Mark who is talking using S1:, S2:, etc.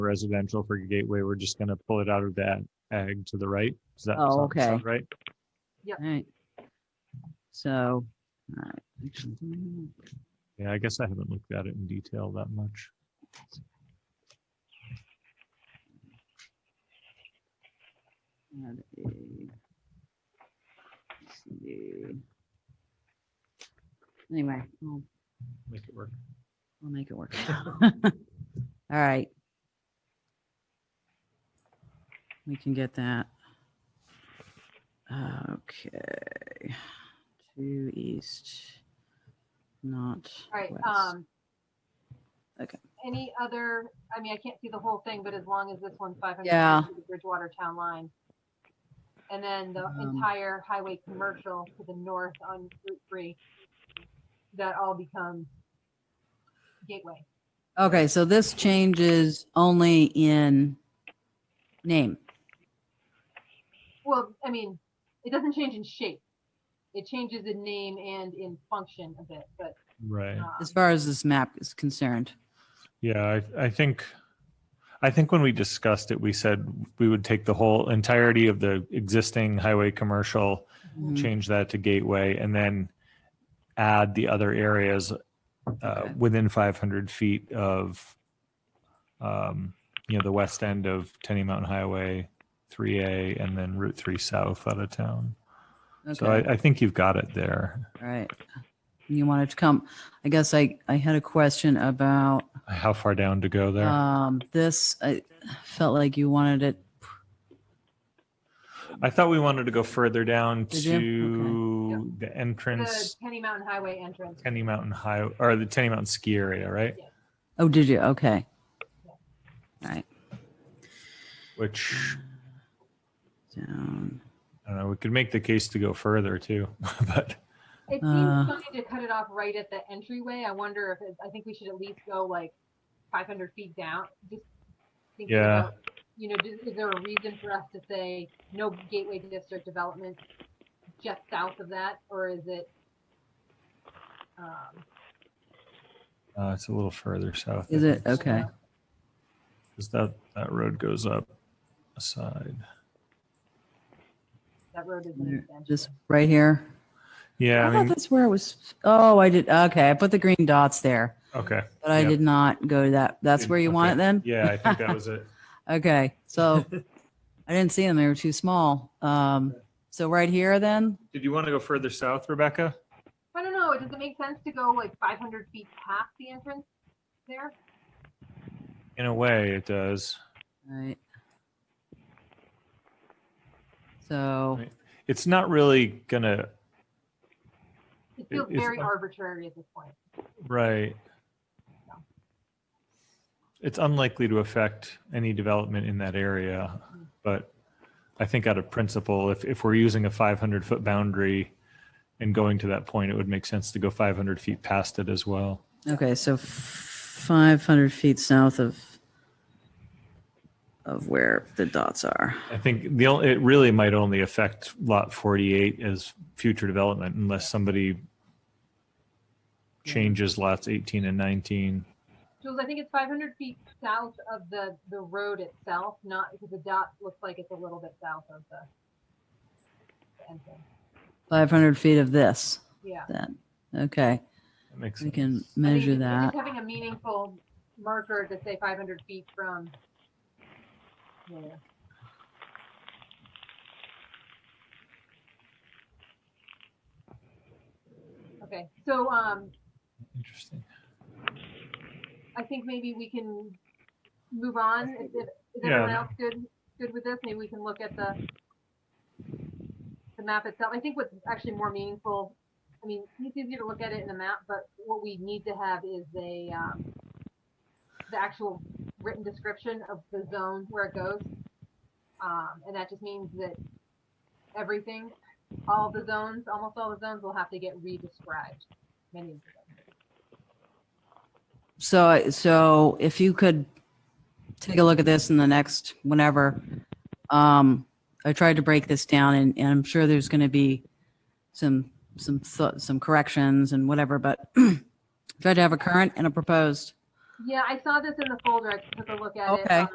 S1: residential for Gateway, we're just gonna pull it out of that ag to the right. Does that
S2: Oh,
S1: sound- sound
S2: okay.
S1: Right?
S2: Alright. So, alright. actually, mm,
S1: Yeah, I guess I haven't looked at it in detail that much.
S2: add a- let's see. Anyway, I'll,
S1: Make it work.
S2: I'll make it work. All right. We can get that. Okay. Two east, not
S3: All right,
S2: west.
S3: um.
S2: Okay.
S3: Any other, I mean, I can't see the whole thing, but as long as this one's five hundred.
S2: Yeah.
S3: Bridgewater town line. And then the
S2: Um,
S3: entire highway commercial to the north on Route three. That all becomes gateway.
S2: Okay, so this changes only in name.
S3: Well, I mean, it doesn't change in shape. It changes in name and in function a bit, but.
S1: Right.
S3: um,
S2: as far as this map is concerned.
S1: Yeah, I, I think, I think when we discussed it, we said we would take the whole entirety of the existing highway commercial,
S2: Mhm.
S1: Mm-hmm. change that to gateway, and then add the other areas uh,
S2: Okay.
S1: within 500 feet of, um, you know, the west end of Tenny Mountain Highway, 3A, and then Route 3 South out of town. So
S2: Okay,
S1: I, I think you've got it there.
S2: all right. You wanted to come, I guess I, I had a question about,
S1: How far down to go there?
S2: um, this, I felt like you wanted it.
S1: I thought we wanted to go further down
S2: Did you? Okay.
S1: to the
S3: The
S1: entrance,
S3: Penny Mountain Highway entrance.
S1: Tenny Mountain High, or the Tenny Mountain Ski Area, right?
S2: Oh, did you? Okay. All right,
S1: Which,
S2: down.
S1: I don't know, we could make the case to go further too, but
S3: It seems
S2: Uh,
S3: funny to cut it off right at the entryway. I wonder if it, I think we should at least go like 500 feet down. Just thinking
S1: Yeah.
S3: about, you know, is, is there a reason for us to say no gateway district development just south of that, or is it? Um,
S1: uh, it's a little further south. I
S2: Is it?
S1: think,
S2: Okay.
S1: Cause that, that road goes up aside.
S3: that road is an
S2: There-
S3: extension.
S2: Just right here.
S1: Yeah,
S2: I
S1: I
S2: thought
S1: mean,
S2: that's where it was. Oh, I did. Okay, I put the green dots there,
S1: okay.
S2: but I
S1: Yep.
S2: did not go to that. That's where you want it then?
S1: Yeah, I think that was it.
S2: Okay, so I didn't see them. They were too small. Um, so right here then?
S1: Did you want to go further south, Rebecca?
S3: I don't know. Does it make sense to go like 500 feet past the entrance there?
S1: In a way, it does.
S2: Right. So,
S1: Right. It's not really gonna,
S3: It feels
S1: it's
S3: very
S1: un-
S3: arbitrary at this point.
S1: Right. It's unlikely to affect any development in that area, but I think out of principle, if, if we're using a 500 foot boundary and going to that point, it would make sense to go 500 feet past it as well.
S2: okay, so f- 500 feet south of, of where the dots are.
S1: I think the only, it really might only affect lot 48 as future development unless somebody changes lots 18 and 19.
S3: Jules, I think it's 500 feet south of the, the road itself, not because the dot looks like it's a little bit south of the, the entrance.
S2: 500 feet of this
S3: Yeah.
S2: then. Okay,
S1: That makes
S2: we
S1: sense.
S2: can
S3: I think
S2: measure
S3: it's- I think
S2: that.
S3: Having a meaningful marker to say 500 feet from. Yeah. Okay, so, um,
S1: Interesting.
S3: I think maybe we can move on. Is it- is
S1: Yeah.
S3: everyone else good, good with this? Maybe we can look at the, the map itself. I think what's actually more meaningful, I mean, it's easier to look at it in a map, but what we need to have is a, um, the actual written description of the zone where it goes. Um, and that just means that everything, all the zones, almost all the zones will have to get re-described. Many of them.
S2: So, I- so if you could take a look at this in the next, whenever, um, I tried to break this down and, and I'm sure there's going to be some, some, thou- some corrections and whatever, but try to have a current and a proposed.
S3: Yeah, I saw this in the folder. I took a look at it.
S2: Okay.
S3: um,